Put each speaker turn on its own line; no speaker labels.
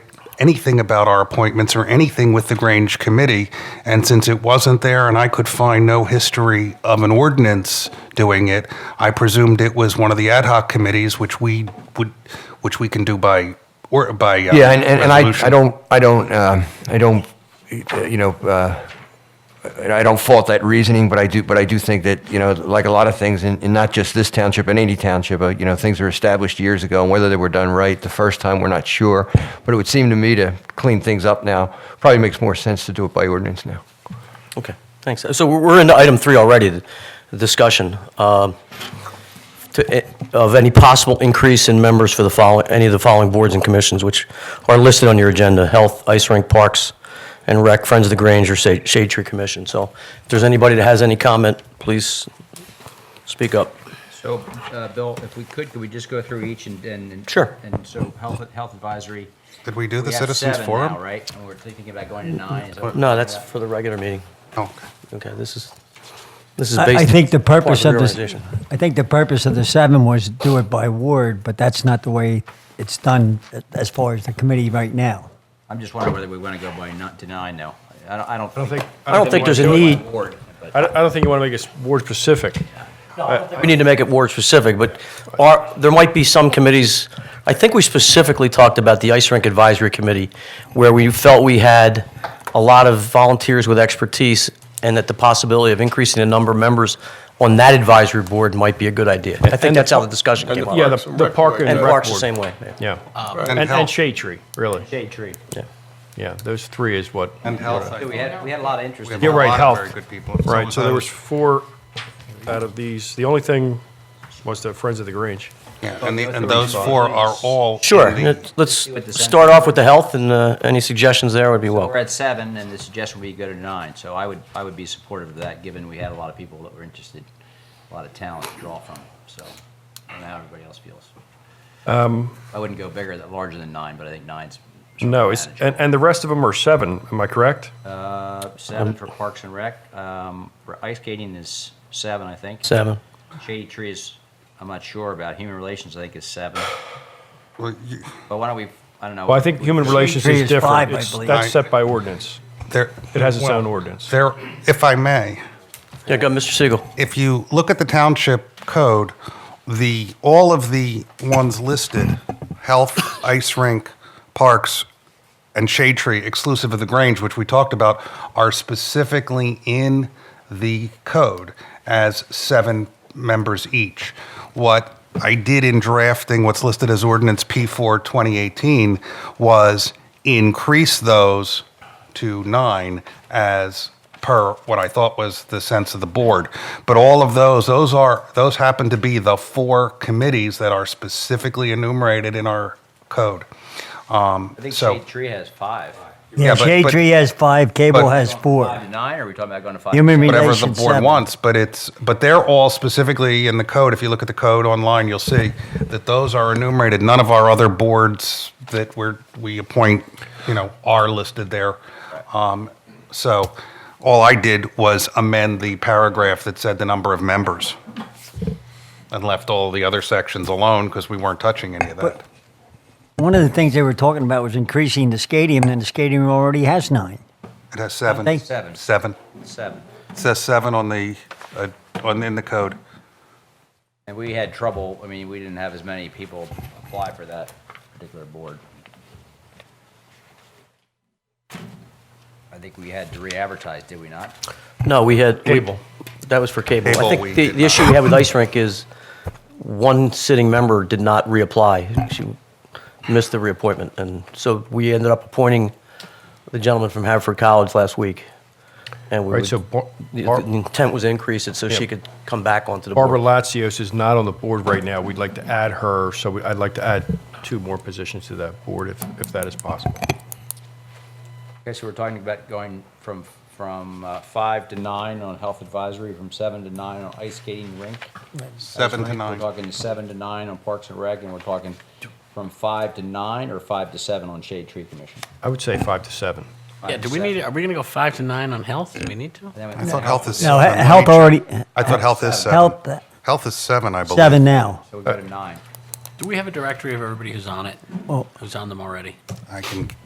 anything about our appointments or anything with the Grange Committee. And since it wasn't there and I could find no history of an ordinance doing it, I presumed it was one of the ad hoc committees, which we would, which we can do by, or by. uh,
Yeah, and, and and I, I
resolution.
don't, I don't, um, I don't, uh, you know, uh, I I don't fault that reasoning, but I do, but I do think that, you know, like a lot of things, and and not just this township, in any township, uh, you know, things were established years ago, and whether they were done right the first time, we're not sure. But it would seem to me to clean things up now, probably makes more sense to do it by ordinance now.
Okay, thanks. So we're- we're into item three already, the discussion um, to- eh, of any possible increase in members for the following, any of the following boards and commissions, which are listed on your agenda, Health, Ice Rink, Parks, and Rec, Friends of the Grange, or Sa- Shade Tree Commission. So if there's anybody that has any comment, please speak up.
So, uh, Bill, if we could, could we just go through each and? and-
Sure.
And so health, health advisory.
Did we do the
We have
citizens
seven
forum?
now, right? And we're thinking about going to nine. is that what we're
No,
talking
that's
about?
for the regular meeting.
Oh, okay.
Okay, this is, this is
I-
based.
I think the purpose
upon
of this,
reorganization.
I think the purpose of the seven was do it by ward, but that's not the way it's done as far as the committee right now.
I'm just wondering whether we want to go by not to nine now. I don't, I don't.
I don't think,
I don't think there's a
Go by
need.
ward, but-
I don't, I don't think you want to make it ward specific.
We need to make it ward-specific, but are, there might be some committees, I think we specifically talked about the Ice Rink Advisory Committee, where we felt we had a lot of volunteers with expertise, and that the possibility of increasing the number of members on that advisory board might be a good idea. I think
And the
that's how the
par-
discussion came up.
Yeah, the, the park and
And
rec
Parks the
board.
same way. yeah.
Yeah.
And
And, and
health.
shade tree, really.
Shade tree.
Yeah.
Yeah, those three is what.
And health. I
We
thought.
had, we had a lot of interest.
We have
in
a
You're right,
lot of
health.
Very good people.
Right, so there was
those-
four out of these. The only thing was the Friends of the Grange.
Yeah, and the- and those four are all. in
Sure,
the-
let's-
See what the
let's
sense
start off with the health, and uh, any suggestions there would be
We're
welcome.
at seven, and the suggestion would be go to nine, so I would, I would be supportive of that, given we had a lot of people that were interested, a lot of talent to draw from, so, I don't know how everybody else feels. I wouldn't go bigger, than larger than nine, but I think nine's. sort of
Um, No, it's, and,
manageable.
and the rest of them are seven, am I correct?
Uh, Seven for Parks and Rec, um, for ice skating is seven, I think.
Seven.
Shady Tree is, I'm not sure about, Human Relations, I think is seven,
Well, you-
but why don't we, I don't know.
Well, I think human relations
tree
is
is five, I
different. It's-
believe.
That's set by ordinance.
There,
It has its
well,
own ordinance.
There, if I may,
Yeah, go, Mr. Siegel.
if you look at the township code, the, all of the ones listed, health, ice rink, parks, and shade tree exclusive of the Grange, which we talked about, are specifically in the code as seven members each. What I did in drafting what's listed as ordinance P4 2018 was increase those to nine as per what I thought was the sense of the board. But all of those, those are, those happen to be the four committees that are specifically enumerated in our code. Um,
I think
so-
Shade Tree has five.
Yeah,
Yeah,
but-
Shade
but-
Tree has five, Cable
but-
has
Five to
four.
nine, or are we talking about going to five?
Human
to seven?
whatever the
Relation
board
seven.
wants, but it's, but they're all specifically in the code. If you look at the code online, you'll see that those are enumerated. None of our other boards that we're, we appoint, you know, are listed there. Um, So all I did was amend the paragraph that said the number of members and left all the other sections alone because we weren't touching any of that.
One of the things they were talking about was increasing the stadium, and the stadium already has nine.
It has seven.
Thank-
Seven.
Seven.
Seven.
It says seven on the, uh, on, in the code.
And we had trouble, I mean, we didn't have as many people apply for that particular board. I think we had to re-advertise, did we not?
No, we had. Cable. That was for cable.
Cable,
I
we
think the,
did
the issue we had with Ice Rink is one sitting member did not reapply. She missed the reappointment. And so we ended up appointing the gentleman from Haverford College last week. And we
Right,
would-
so Bar-
the
Bar-
the intent was to increase it so she could come back onto the
Barbara
board.
Latsios is not on the board right now. We'd like to add her, so we- I'd like to add two more positions to that board if, if that is possible.
Okay, so we're talking about going from, from uh, five to nine on health advisory, from seven to nine on ice skating rink.
Seven
Ice
to
rink,
nine.
We're talking to seven to nine on parks and rec, and we're talking from five to nine or five to seven on shade tree commission.
I would say five to seven.
Yeah, do we need, are we going to go five to nine on health? Do we need to?
I thought health is.
No,
seven.
he- health already,
I thought health is seven.
health, uh,
Health is seven, I believe.
seven now.
So we go to nine.
Do we have a directory of everybody who's on it?
Well,
Who's on them already?
I can